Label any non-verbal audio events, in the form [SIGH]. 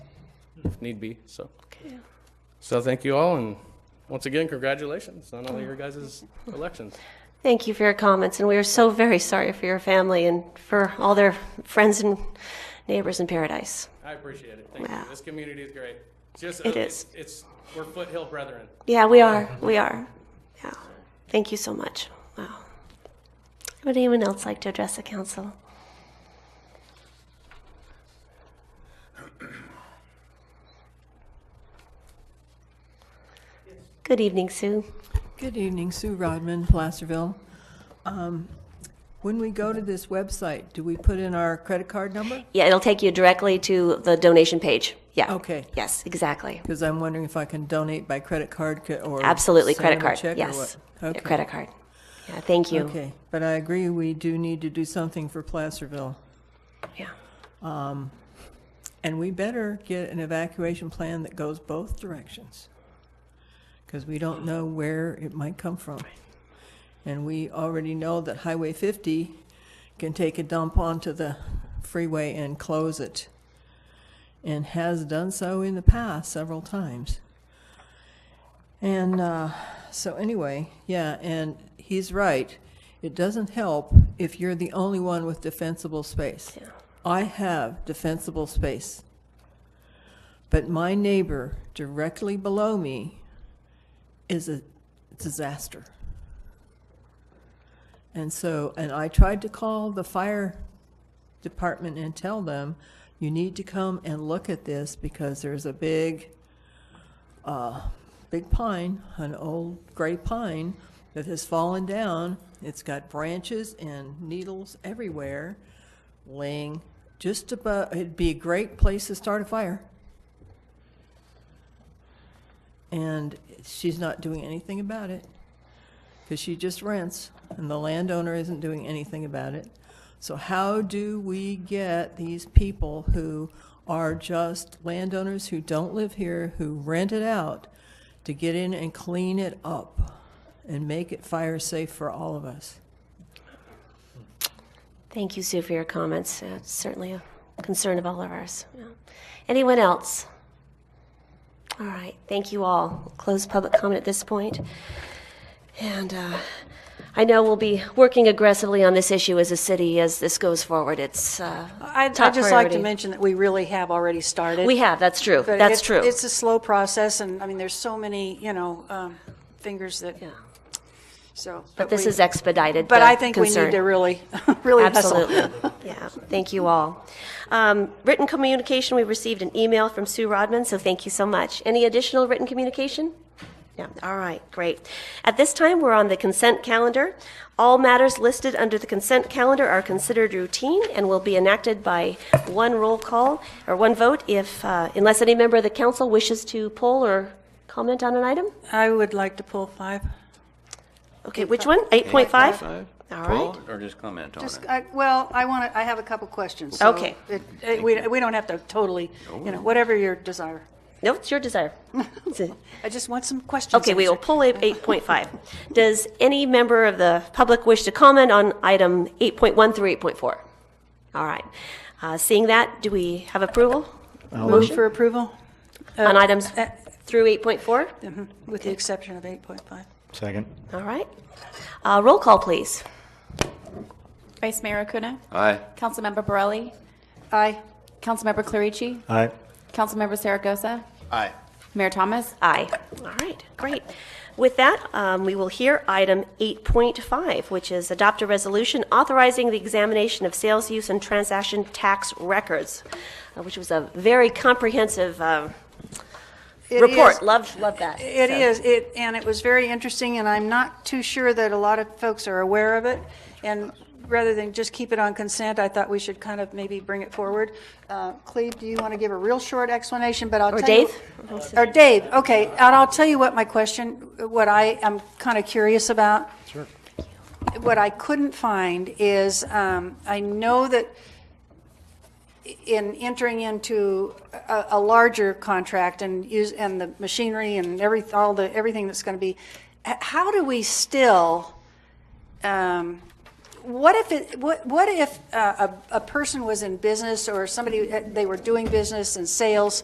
if need be, so. So thank you all, and once again, congratulations on all your guys' elections. Thank you for your comments, and we are so very sorry for your family and for all their friends and neighbors in Paradise. I appreciate it, thank you. Wow. This community is great. Just, uh, It is. It's, we're foothill brethren. Yeah, we are. We are. Yeah. Thank you so much. Wow. Would anyone else like to address the council? Good evening, Sue. Good evening, Sue Rodman, Placerville. Um, When we go to this website, do we put in our credit card number? Yeah, it'll take you directly to the donation page. Yeah. Okay. Yes, exactly. Because I'm wondering if I can donate by credit card ca- or. Absolutely, send credit them a card. check or Yes. what? Yeah, Okay. Credit card. Yeah, thank you. Okay, but I agree, we do need to do something for Placerville. Yeah. And we better get an evacuation plan that goes both directions. Because we don't know where it might come from. And we already know that Highway 50 can take a dump onto the freeway and close it. And has done so in the past several times. And uh, so anyway, yeah, and he's right. It doesn't help if you're the only one with defensible space. I have defensible space. But my neighbor directly below me is a disaster. And so, and I tried to call the fire department and tell them, you need to come and look at this because there's a big big pine, an old gray pine that has fallen down. It's got branches and needles everywhere, laying just above. It'd be a great place to start a fire. And she's not doing anything about it because she just rents and the landowner isn't doing anything about it. So how do we get these people who are just landowners who don't live here, who rent it out, to get in and clean it up and make it fire safe for all of us? Thank you, Sue, for your comments. Uh, It's certainly a concern of all of ours. Yeah. Anyone else? All right, thank you all. We'll Close public comment at this point. And uh, I know we'll be working aggressively on this issue as a city as this goes forward. It's, uh, I'd, Top I'd just like to priority. mention that we really have already started. we have, that's true, But that's it's- true. It's a slow process, and, I mean, there's so many, you know, um, fingers that, Yeah. so. But this we- is expedited, But the I think we need concern. to really, [LAUGHS] really hustle. Absolutely. [LAUGHS] Yeah, thank you all. Um, Written communication, we received an email from Sue Rodman, so thank you so much. Any additional written communication? Yeah, all right, great. At this time, we're on the consent calendar. All matters listed under the consent calendar are considered routine and will be enacted by one roll call or one vote if, uh, unless any member of the council wishes to poll or comment on an item? I would like to pull five. Okay, which one? 8.5? All right. Pull it or just comment on it? Just, I, well, I want to, I have a couple questions. so Okay. it- it- We, we don't have to totally, you know, whatever your desire. No, it's your desire. [LAUGHS] It's a- I just want some questions. Okay, we will answered. pull up 8.5. Does any member of the public wish to comment on item 8.1 through 8.4? All right. Uh, Seeing that, do we have approval Move for approval, on items through 8.4? Mm-hmm, with the exception of 8.5. Second. All right. Uh, Roll call, please. Vice Mayor Acuna, Aye. Councilmember Borelli, Aye. Councilmember Clarici, Aye. Councilmember Saragosa, Aye. Mayor Thomas, Aye. All right, great. With that, um, we will hear item 8.5, which is adopt a resolution authorizing the examination of sales use and transaction tax records, uh, which was a very comprehensive uh, It is- report. Love, love that. It So- is, it, and it was very interesting, and I'm not too sure that a lot of folks are aware of it. And rather than just keep it on consent, I thought we should kind of maybe bring it forward. Uh, Cleve, do you want to give a real short explanation, but I'll tell Or you. Dave? Or Dave, okay, and I'll tell you what my question, what I am kind of curious about. Sure. What I couldn't find is, um, I know that in entering into a, a larger contract and use, and the machinery and every, all the, everything that's going to be, h- how do we still, um, what if it, what, what if uh, a, a person was in business or somebody, uh, they were doing business and sales